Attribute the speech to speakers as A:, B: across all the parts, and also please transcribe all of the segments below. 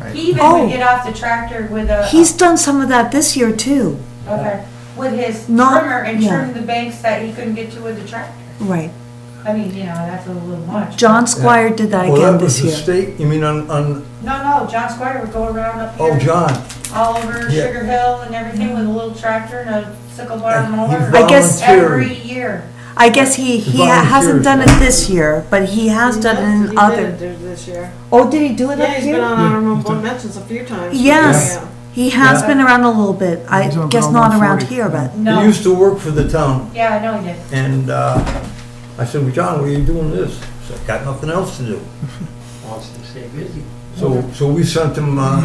A: Right.
B: He even
C: Oh.
B: would get off the tractor with a.
C: He's done some of that this year too.
B: Okay, with his
C: Not-
B: trimmer and
C: yeah.
B: trim the banks that he couldn't get to with the tractor.
C: Right.
B: I mean, you know, that's a little much.
C: John Squire did that
A: Well,
C: again
A: that was
C: this
A: the
C: year.
A: state, you mean on, on,
B: No, no, John Squire would go around up
A: oh,
B: here,
A: John.
B: all over
A: Yeah.
B: Sugar Hill and everything with a little tractor and a sickle bar
A: And
B: and
A: he
B: mower.
C: I guess-
A: volunteered.
B: Every year.
C: I guess he, he
A: The
C: hasn't
A: volunteers.
C: done it this year, but he has done it in other.
D: This year.
C: Oh, did he do it up
D: Yeah, he's been
C: here?
D: on honorable mentions a few times.
C: Yes.
D: Yeah.
C: He has
A: Yeah.
C: been around a little bit. I
A: He's on
C: guess
A: Ground
C: not around
A: 140.
C: here, but.
A: He
B: No,
A: used to work for the town,
B: yeah, I know he did.
A: and, uh, I said, well, John, why are you doing this? He said, got nothing else to do.
E: wants to stay busy.
A: So, so we sent him, uh,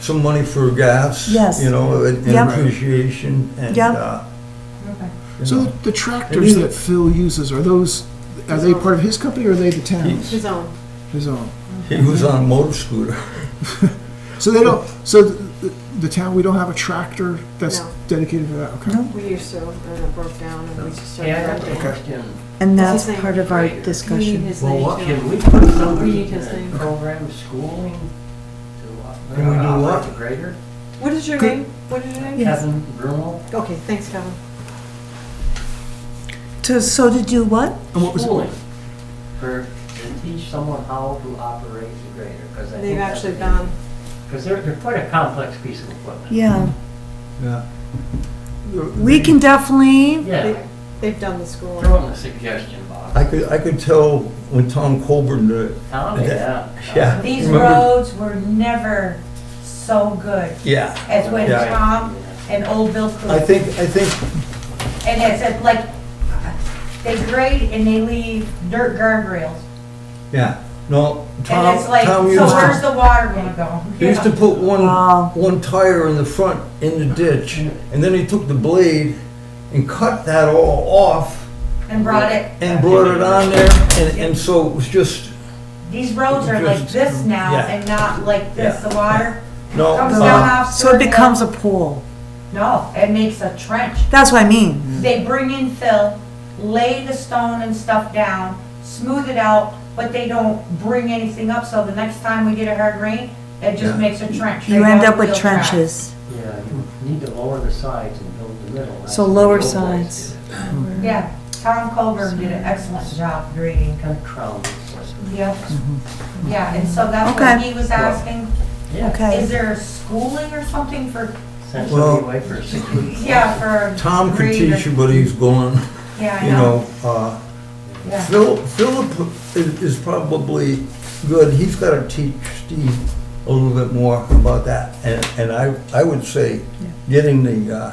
A: some money for gas.
C: Yes.
A: You know, in in
C: Yep.
A: appreciation and,
C: Yep.
A: uh.
B: Okay.
A: you
F: So
A: know,
F: the tractors that Phil uses, are those, are they part of his company or are they the town's?
D: His own.
F: His own?
A: He was on a motor scooter.
F: So they don't, so the, the town, we don't have a tractor that's
D: No.
F: dedicated to that, okay?
C: No.
D: We used to, and it broke down and we just started.
E: Yeah,
D: renting.
E: that's a question.
C: And
D: What's
C: that's
D: his name?
C: part of our
D: Right. We need
C: discussion.
D: his
A: Well, what
D: name
E: Can we put
D: We
E: somebody
D: need
E: in
D: his
E: a
D: name.
E: program schooling to
A: Can we do
E: uh,
A: what?
E: operate a grader?
D: too. What is your name? What is your name?
C: Yes.
E: Kevin Bruno,
D: Okay, thanks, Kevin.
C: To, so to do what?
F: And what was it?
E: schooling for, to teach someone how to operate the grader, because I think
D: They've
E: that's.
D: actually done,
E: Because they're, they're quite a complex piece of equipment.
C: Yeah.
A: Yeah.
C: We can definitely,
E: Yeah,
D: they've done the school.
E: throw in the suggestion box.
A: I could, I could tell when Tom Colburn, uh,
E: Tom, yeah.
A: Yeah.
B: These
A: Remember-
B: roads were never so good
A: yeah.
B: as when
A: Yeah.
B: Tom and old Bill Coop.
A: I think, I think
B: And it's a- like, they grade and they leave dirt guardrails.
A: Yeah, no,
B: And
A: Tom,
B: it's like,
A: Tom
B: so
A: used
B: where's
A: to,
B: the water gonna go?
A: he used to put one,
C: Wow.
A: one tire in the front in the ditch, and then he took the blade and cut that all off
B: And brought it,
A: and brought it on there, and, and so it was just,
B: these roads are like this now
A: Yeah.
B: and not like this,
A: Yeah.
B: the water
A: no.
B: comes
A: uh,
B: down off.
C: so it
B: Third Hill.
C: becomes a pool.
B: No, it makes a trench.
C: That's what I mean.
A: Mm.
B: They bring in fill, lay the stone and stuff down, smooth it out, but they don't bring anything up, so the next time we get a hard rain, it
A: Yeah.
B: just makes a trench.
C: You
B: They
C: end
B: don't
C: up with
B: feel trapped.
C: trenches.
E: Yeah, you need to lower the sides and build the middle. That's
C: So
E: the
C: lower
E: old boys
C: sides.
E: did it.
B: Yeah, Tom Colburn did an excellent job grading.
E: Kind of crown this one.
B: Yep. Yeah, and so that's what
C: Mm-hmm. Okay.
B: he was asking,
E: Yeah.
B: is
C: Okay.
B: there schooling or something for,
E: Send
A: Well-
E: somebody away for six weeks.
B: yeah, for.
A: Tom could
B: grade or-
A: teach you, but he's gone,
B: Yeah, I
A: you
B: know.
A: know, uh,
B: Yeah.
A: Phil, Philip is, is probably good, he's gotta teach Steve a little bit more about that, and, and I, I would say getting the, uh,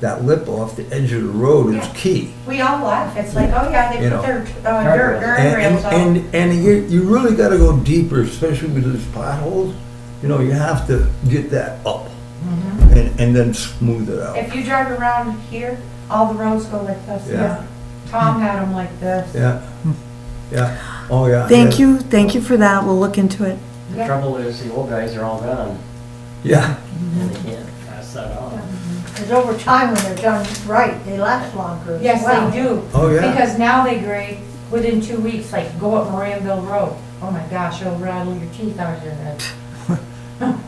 A: that lip off the edge of the road is
B: Yeah.
A: key.
B: We all laugh, it's like, oh yeah, they
A: You
B: put
A: know.
B: their, uh, dirt
A: And,
B: guardrails on.
A: and, and you, you really gotta go deeper, especially with these potholes. You know, you have to get that up and, and then smooth it out.
B: If you drive around here, all the roads go like this,
A: Yeah.
B: yeah. Tom had them like this.
A: Yeah, yeah, oh, yeah.
C: Thank
A: yeah.
C: you, thank you for that. We'll look into it.
E: The trouble is, the old guys are all gone,
A: Yeah,
E: and they can't pass that on.
G: Because over time, when they're done right, they last longer as
B: Yes,
G: well.
B: they do.
A: oh, yeah.
B: Because now they grade within two weeks, like go up Moranville Road. Oh my gosh, it'll rattle your teeth out of your head.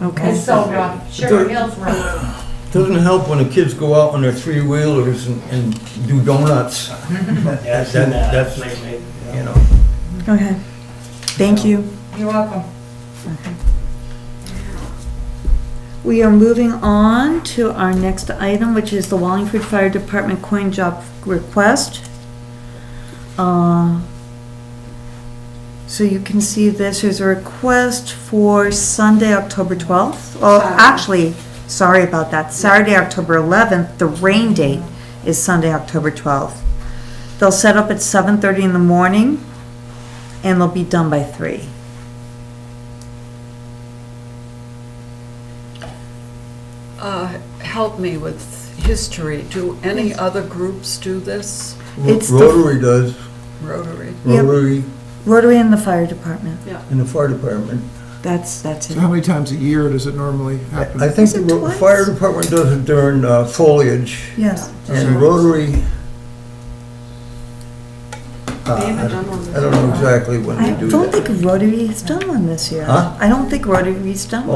C: Okay.
B: It's so rough. Sugar Hills Road.
A: Doesn't help when the kids go out on their three-wheelers and, and do donuts,
E: Yeah, I've
A: That-
E: seen that
A: that's-
E: lately.
A: you know.
C: Okay. Thank you.
B: You're welcome.
C: We are moving on to our next item, which is the Wallingford Fire Department coin job request. Uh, So you can see this is a request for Sunday, October 12th. Oh,
D: Saturday.
C: actually, sorry about that, Saturday, October 11th, the rain date is Sunday, October 12th. They'll set up at 7:30 in the morning, and they'll be done by three.
H: Uh, Help me with history. Do any other groups do this?
C: It's the-
A: Rotary does,
H: Rotary?
C: Yep.
A: Rotary
C: Rotary and the fire department,
A: and the fire department.
C: that's, that's it.
F: So how many times a year does it normally happen?
A: I think
C: Is it
A: the ro-
C: twice?
A: fire department does it during uh, foliage.
C: Yes.
A: And Rotary. uh,
D: They haven't done one.
A: I don't know exactly when
C: I
A: they do that.
C: don't think Rotary has done one this year.
A: Huh?
C: I don't think Rotary's done one.